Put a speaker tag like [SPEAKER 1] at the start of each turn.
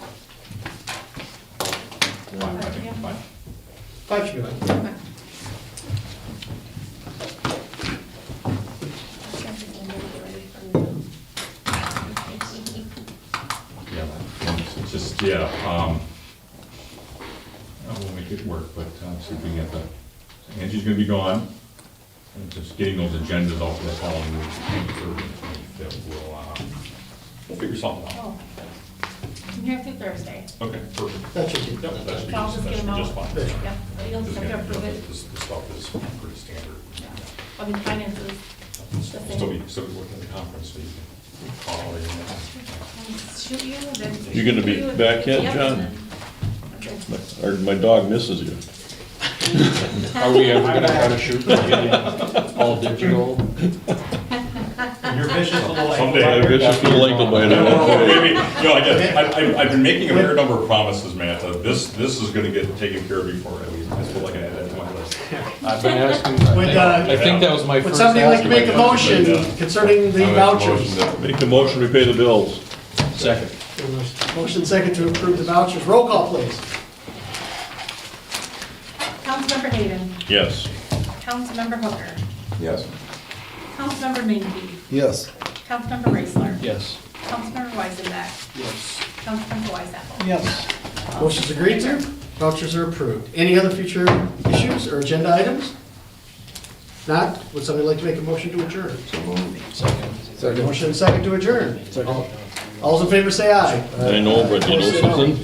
[SPEAKER 1] Fine, I think, fine.
[SPEAKER 2] Five should be fine.
[SPEAKER 1] Yeah, it's just, yeah, um, uh, we'll make it work, but uh, see if we can get the, Angie's gonna be gone. And just getting those agendas out for the following week, that will, uh, we'll figure something out.
[SPEAKER 3] Oh. I'm here through Thursday.
[SPEAKER 1] Okay, perfect.
[SPEAKER 2] That should be.
[SPEAKER 1] Yep, that should be,
[SPEAKER 3] I'll
[SPEAKER 1] that
[SPEAKER 3] just
[SPEAKER 1] should
[SPEAKER 3] get
[SPEAKER 1] be
[SPEAKER 3] them
[SPEAKER 1] just
[SPEAKER 3] out.
[SPEAKER 1] fine.
[SPEAKER 3] Yep, you'll
[SPEAKER 1] Just
[SPEAKER 3] just have to
[SPEAKER 1] gonna-
[SPEAKER 3] approve it.
[SPEAKER 1] This, this stuff is pretty standard.
[SPEAKER 3] I mean, finances.
[SPEAKER 1] Still be, still be working at the conference, so you can call in.
[SPEAKER 3] Um, Shoot you, then.
[SPEAKER 4] You gonna be back yet,
[SPEAKER 3] Yep.
[SPEAKER 4] John?
[SPEAKER 3] Okay.
[SPEAKER 4] Or my dog misses you.
[SPEAKER 5] Are we ever gonna try to shoot for video? all digital?
[SPEAKER 2] Your vision for the light.
[SPEAKER 1] Someday,
[SPEAKER 4] I wish I could like to bite it.
[SPEAKER 1] Maybe, no, I guess, I- I- I've been making a fair number of promises, Matt, uh, this, this is gonna get taken care of before, I mean, I feel like I had that to my list.
[SPEAKER 5] I've been asking, I
[SPEAKER 2] Would,
[SPEAKER 5] think-
[SPEAKER 2] uh,
[SPEAKER 5] I think that was my
[SPEAKER 2] Would
[SPEAKER 5] first.
[SPEAKER 2] somebody like to
[SPEAKER 5] asking.
[SPEAKER 2] make a motion concerning the vouchers?
[SPEAKER 4] Make the motion, we pay the bills.
[SPEAKER 5] Second.
[SPEAKER 2] Motion second to approve the vouchers. Roll call, please.
[SPEAKER 3] Councilmember Hayden,
[SPEAKER 4] Yes.
[SPEAKER 3] Councilmember Hooker,
[SPEAKER 1] Yes.
[SPEAKER 3] Councilmember Minke,
[SPEAKER 6] Yes.
[SPEAKER 3] Councilmember Raisler,
[SPEAKER 5] Yes.
[SPEAKER 3] Councilmember Weisenbeck,
[SPEAKER 5] Yes.
[SPEAKER 3] Councilmember Weisapple.
[SPEAKER 2] Yes. Motion's agreed to. Vouchers are approved. Any other future issues or agenda items? Not? Would somebody like to make a motion to adjourn? Second. Motion second to adjourn. All- All's in favor, say aye.
[SPEAKER 4] I know, but you know
[SPEAKER 2] Opposed, say no.
[SPEAKER 4] something?